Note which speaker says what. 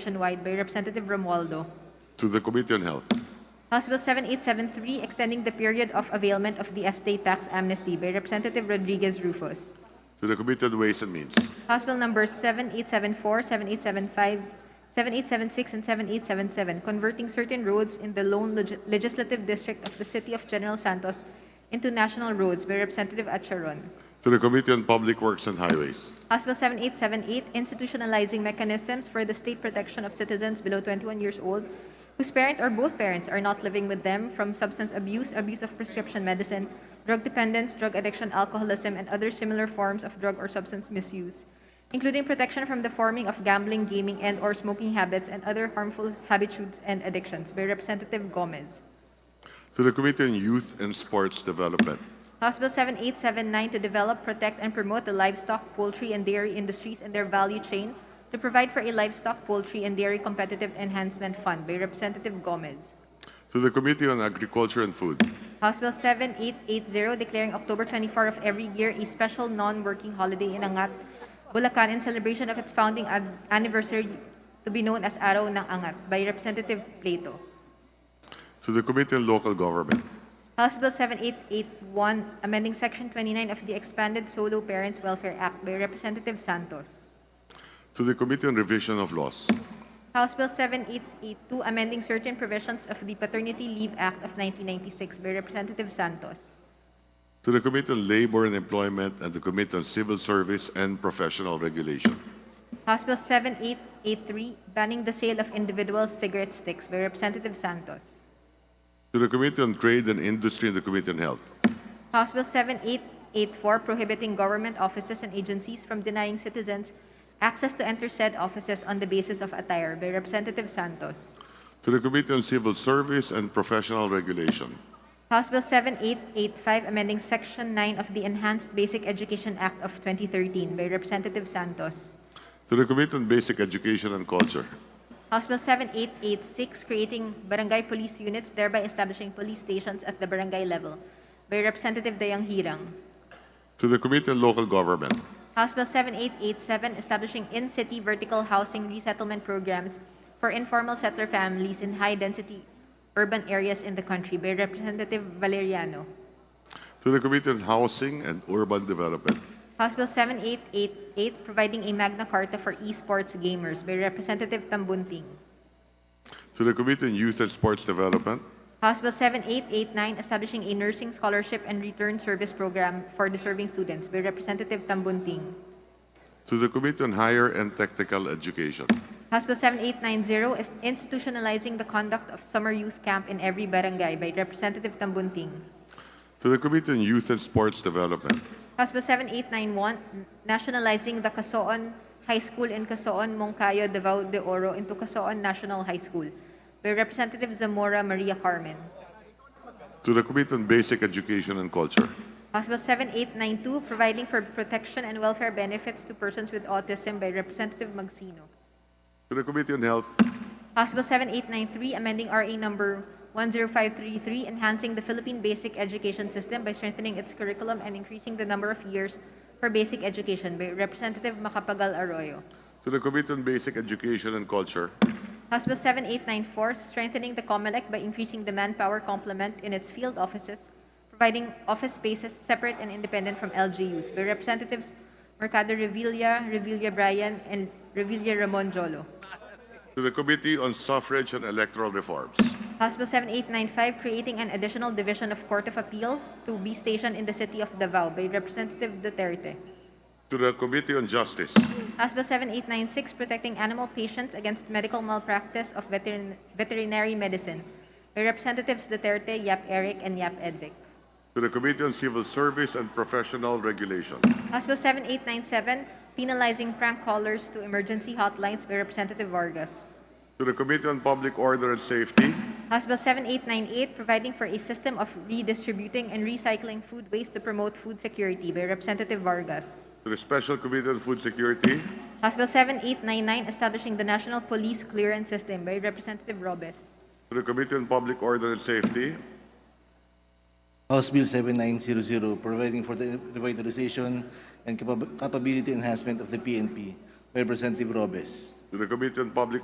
Speaker 1: nationwide by Representative Romualdo.
Speaker 2: to the Committee on Health,
Speaker 1: House Bill 7873, extending the period of availment of the estate tax amnesty by Representative Rodriguez Rufus.
Speaker 2: to the Committee on Ways and Means,
Speaker 1: House Bill numbers 7874, 7875, 7876, and 7877, converting certain roads in the lone leg- legislative district of the city of General Santos into national roads by Representative Acharon.
Speaker 2: to the Committee on Public Works and Highways,
Speaker 1: House Bill 7878, institutionalizing mechanisms for the state protection of citizens below 21 years old whose parent or both parents are not living with them from substance abuse, abuse of prescription medicine, drug dependence, drug addiction, alcoholism, and other similar forms of drug or substance misuse, including protection from the forming of gambling, gaming, and or smoking habits and other harmful habitudes and addictions by Representative Gomez.
Speaker 2: to the Committee on Youth and Sports Development,
Speaker 1: House Bill 7879 to develop, protect, and promote the livestock, poultry, and dairy industries and their value chain to provide for a livestock, poultry, and dairy competitive enhancement fund by Representative Gomez.
Speaker 2: to the Committee on Agriculture and Food,
Speaker 1: House Bill 7880 declaring October 24 of every year a special non-working holiday in Angat, Bulacan in celebration of its founding ad- anniversary to be known as Araw ng Angat by Representative Plato.
Speaker 2: to the Committee on Local Government,
Speaker 1: House Bill 7881 amending Section 29 of the Expanded Solo Parents Welfare Act by Representative Santos.
Speaker 2: to the Committee on Revision of Laws,
Speaker 1: House Bill 7882, amending certain provisions of the Paternity Leave Act of 1996 by Representative Santos.
Speaker 2: to the Committee on Labor and Employment and the Committee on Civil Service and Professional Regulation,
Speaker 1: House Bill 7883, banning the sale of individual cigarette sticks by Representative Santos.
Speaker 2: to the Committee on Trade and Industry and the Committee on Health,
Speaker 1: House Bill 7884, prohibiting government offices and agencies from denying citizens access to enter said offices on the basis of attire by Representative Santos.
Speaker 2: to the Committee on Civil Service and Professional Regulation,
Speaker 1: House Bill 7885, amending Section 9 of the Enhanced Basic Education Act of 2013 by Representative Santos.
Speaker 2: to the Committee on Basic Education and Culture,
Speaker 1: House Bill 7886, creating barangay police units, thereby establishing police stations at the barangay level by Representative Dayang Hirang.
Speaker 2: to the Committee on Local Government,
Speaker 1: House Bill 7887, establishing in-city vertical housing resettlement programs for informal settler families in high-density urban areas in the country by Representative Valeriano.
Speaker 2: to the Committee on Housing and Urban Development,
Speaker 1: House Bill 7888, providing a Magna Carta for esports gamers by Representative Tambunting.
Speaker 2: to the Committee on Youth and Sports Development,
Speaker 1: House Bill 7889, establishing a nursing scholarship and return service program for deserving students by Representative Tambunting.
Speaker 2: to the Committee on Higher and Technical Education,
Speaker 1: House Bill 7890, is institutionalizing the conduct of summer youth camp in every barangay by Representative Tambunting.
Speaker 2: to the Committee on Youth and Sports Development,
Speaker 1: House Bill 7891, nationalizing the Casoon High School in Casoon, Moncayo, Davao de Oro into Casoon National High School by Representative Zamora Maria Carmen.
Speaker 2: to the Committee on Basic Education and Culture,
Speaker 1: House Bill 7892, providing for protection and welfare benefits to persons with autism by Representative Magsino.
Speaker 2: to the Committee on Health,
Speaker 1: House Bill 7893, amending RA number 10533, enhancing the Philippine basic education system by strengthening its curriculum and increasing the number of years for basic education by Representative Macapagal Arroyo.
Speaker 2: to the Committee on Basic Education and Culture,
Speaker 1: House Bill 7894, strengthening the COMELEC by increasing the manpower complement in its field offices, providing office spaces separate and independent from LGUs by Representatives Mercado Revilla, Revilla Bryan, and Revilla Ramon Jolo.
Speaker 2: to the Committee on Suffrage and Electoral Reforms,
Speaker 1: House Bill 7895, creating an additional division of Court of Appeals to be stationed in the city of Davao by Representative Duterte.
Speaker 2: to the Committee on Justice,
Speaker 1: House Bill 7896, protecting animal patients against medical malpractice of veterin- veterinary medicine by Representatives Duterte, Yap Eric, and Yap Edvic.
Speaker 2: to the Committee on Civil Service and Professional Regulation,
Speaker 1: House Bill 7897, penalizing prank callers to emergency hotlines by Representative Vargas.
Speaker 2: to the Committee on Public Order and Safety,
Speaker 1: House Bill 7898, providing for a system of redistributing and recycling food waste to promote food security by Representative Vargas.
Speaker 2: to the Special Committee on Food Security,
Speaker 1: House Bill 7899, establishing the National Police Clearance System by Representative Robes.
Speaker 2: to the Committee on Public Order and Safety,
Speaker 3: House Bill 7900, providing for the revitalization and capab- capability enhancement of the PNP. Representative Robes.
Speaker 2: to the Committee on Public